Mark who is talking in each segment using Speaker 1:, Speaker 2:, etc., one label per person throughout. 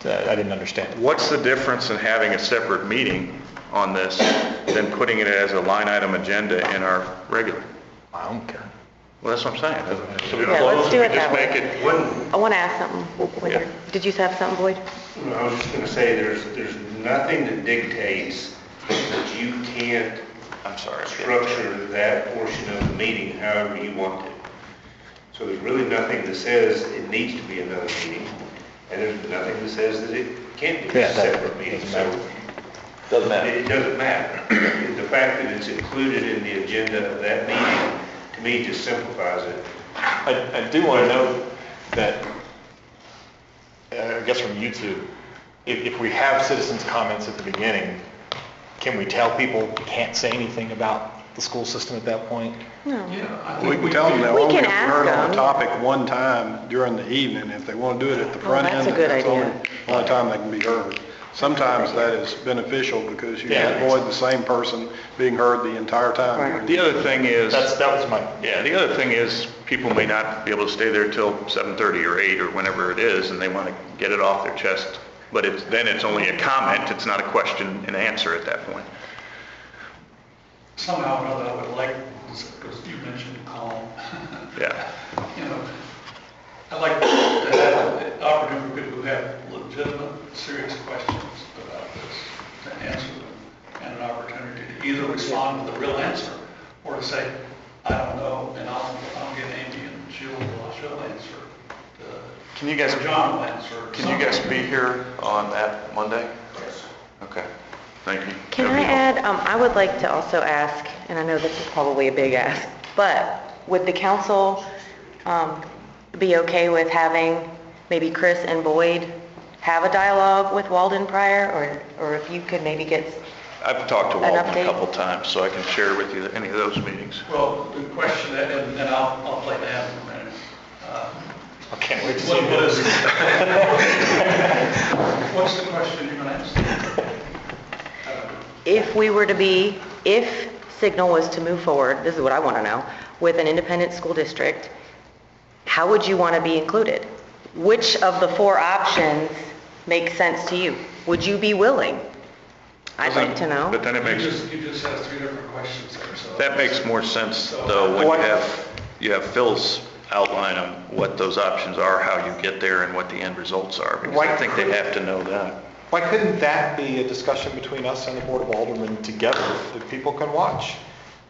Speaker 1: that I didn't understand.
Speaker 2: What's the difference in having a separate meeting on this than putting it as a line item agenda in our regular?
Speaker 1: I don't care.
Speaker 2: Well, that's what I'm saying. So we
Speaker 3: Yeah, let's
Speaker 2: close,
Speaker 3: do
Speaker 2: we
Speaker 3: it that
Speaker 2: just
Speaker 3: way.
Speaker 2: make it,
Speaker 3: I want to ask something. Wait,
Speaker 2: Yeah.
Speaker 3: Did you have something, Boyd?
Speaker 4: No, I was just gonna say, there's, there's nothing that dictates that you can't
Speaker 2: I'm sorry.
Speaker 4: structure that portion of the meeting however you want to. So there's really nothing that says it needs to be another meeting, and there's nothing that says that it can't be
Speaker 1: Yeah, that
Speaker 4: a separate meeting.
Speaker 1: doesn't
Speaker 4: So
Speaker 1: matter.
Speaker 5: Doesn't matter.
Speaker 4: it doesn't matter. The fact that it's included in the agenda of that meeting, to me, just simplifies it.
Speaker 1: I, I do want to note that, uh, I guess from YouTube, if, if we have citizens' comments at the beginning, can we tell people can't say anything about the school system at that point?
Speaker 6: We can tell them that
Speaker 3: We
Speaker 6: we're only
Speaker 3: can ask
Speaker 6: heard on
Speaker 3: them.
Speaker 6: the topic one time during the evening. If they want to do it at the front
Speaker 3: Oh, that's
Speaker 6: end,
Speaker 3: a good
Speaker 6: that's the only
Speaker 3: idea.
Speaker 6: only time they can be heard. Sometimes that is beneficial because you
Speaker 1: Yeah.
Speaker 6: avoid the same person being heard the entire
Speaker 3: Right.
Speaker 6: time.
Speaker 2: The other thing is,
Speaker 1: That's, that was my,
Speaker 2: yeah, the other thing is, people may not be able to stay there till 7:30 or 8 or whenever it is, and they want to get it off their chest. But it's, then it's only a comment, it's not a question and answer at that point.
Speaker 7: somehow or another, I would like, because you mentioned calm,
Speaker 2: Yeah.
Speaker 7: you know, I'd like to have the opportunity for people who have legitimate, serious questions about this, to answer them, and an opportunity to either respond with a real answer, or to say, I don't know, and I'll, I'll get Amy and she'll, she'll answer. uh,
Speaker 2: Can you guys-
Speaker 7: or John will answer.
Speaker 2: Can you guys be here on that Monday? Okay, thank you.
Speaker 3: Can I add, um, I would like to also ask, and I know this is probably a big ask, but would the council, um, be okay with having maybe Chris and Boyd have a dialogue with Walden Prior, or, or if you could maybe get,
Speaker 2: I've talked to
Speaker 3: An
Speaker 2: Walden a
Speaker 3: update?
Speaker 2: couple times, so I can share with you any of those meetings.
Speaker 7: Well, the question, and then I'll, I'll play that in a minute. Uh,
Speaker 1: I can't wait to see
Speaker 7: What what
Speaker 1: this.
Speaker 7: is, what's the question you're gonna ask?
Speaker 3: if we were to be, if Signal was to move forward, this is what I want to know, with an independent school district, how would you want to be included? Which of the four options makes sense to you? Would you be willing? I'd like to know.
Speaker 2: But then it
Speaker 7: You
Speaker 2: makes,
Speaker 7: just, you just asked three different questions there, so.
Speaker 2: that makes more sense, though, when you have, you have Phil's outline on what those options are, how you get there, and what the end results are, because I
Speaker 1: Why-
Speaker 2: think they have to know that.
Speaker 1: Why couldn't that be a discussion between us and the Board of Aldermen together that people can watch?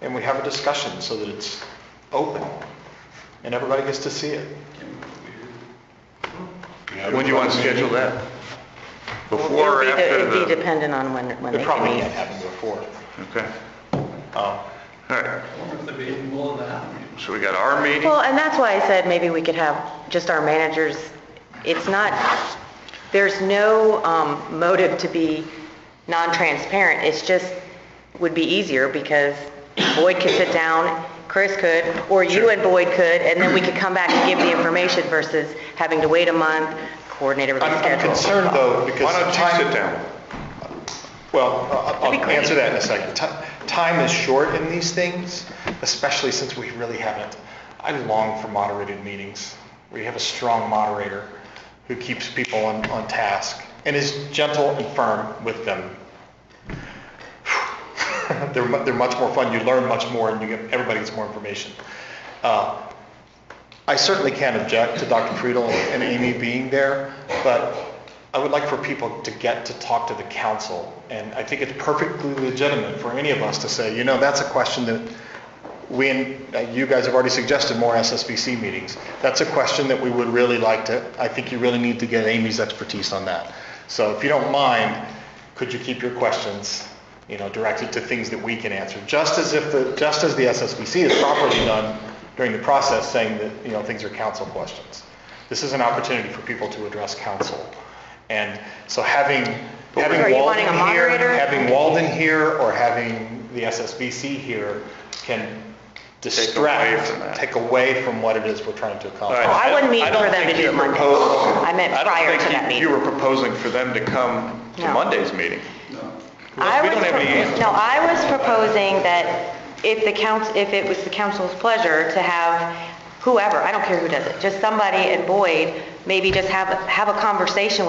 Speaker 1: And we have a discussion so that it's open and everybody gets to see it.
Speaker 2: When do you want to schedule that? Before or
Speaker 3: It'll be de-
Speaker 2: after
Speaker 3: It'd be
Speaker 2: the?
Speaker 3: dependent on when, when
Speaker 1: It
Speaker 3: they
Speaker 1: probably
Speaker 3: can
Speaker 1: can't happen
Speaker 3: meet.
Speaker 1: before.
Speaker 2: Okay,
Speaker 1: Um,
Speaker 2: all right,
Speaker 7: If the meeting will allow.
Speaker 2: so we got our meeting,
Speaker 3: Well, and that's why I said maybe we could have just our managers, it's not, there's no um, motive to be non-transparent, it's just, would be easier because Boyd could sit down, Chris could, or you and Boyd could, and then we could come back and give the information versus having to wait a month, coordinate
Speaker 1: I'm
Speaker 3: everybody's
Speaker 1: I'm
Speaker 3: schedule.
Speaker 1: concerned though, because.
Speaker 2: why don't
Speaker 1: time-
Speaker 2: you sit down?
Speaker 1: Well, I-
Speaker 3: That'd be
Speaker 1: I'll
Speaker 3: great.
Speaker 1: answer that in a second. Ti- Time is short in these things, especially since we really haven't, I long for moderated meetings. We have a strong moderator who keeps people on, on task and is gentle and firm with them. They're, mu- they're much more fun, you learn much more and you get, everybody gets more information. Uh, I certainly can't object to Dr. Friedel and Amy being there, but I would like for people to get to talk to the council. And I think it's perfectly legitimate for any of us to say, you know, that's a question that we, and uh, you guys have already suggested more SSBC meetings. That's a question that we would really like to, I think you really need to get Amy's expertise on that. So if you don't mind, could you keep your questions, you know, directed to things that we can answer? Just as if the, just as the SSBC is properly done during the process, saying that, you know, things are council questions. This is an opportunity for people to address council. And so having,
Speaker 3: Are
Speaker 1: having
Speaker 3: you wanting a
Speaker 1: Walden here,
Speaker 3: moderator?
Speaker 1: having Walden here or having the SSBC here can
Speaker 2: from that.
Speaker 1: distract, take away from what it is we're trying to accomplish.
Speaker 3: Oh, I wouldn't mean
Speaker 2: I don't
Speaker 3: for them
Speaker 2: think
Speaker 3: to do
Speaker 2: you
Speaker 3: it Monday.
Speaker 2: proposed-
Speaker 3: I meant
Speaker 2: I don't
Speaker 3: prior
Speaker 2: think
Speaker 3: to
Speaker 2: you-
Speaker 3: that
Speaker 2: You
Speaker 3: meeting.
Speaker 2: were proposing for them to come to
Speaker 3: No.
Speaker 2: Monday's meeting.
Speaker 3: I
Speaker 2: We
Speaker 3: was
Speaker 2: don't have any
Speaker 3: propo-
Speaker 2: answers.
Speaker 3: No, I was proposing that if the council, if it was the council's pleasure to have whoever, I don't care who does it, just somebody at Boyd, maybe just have, have a conversation with.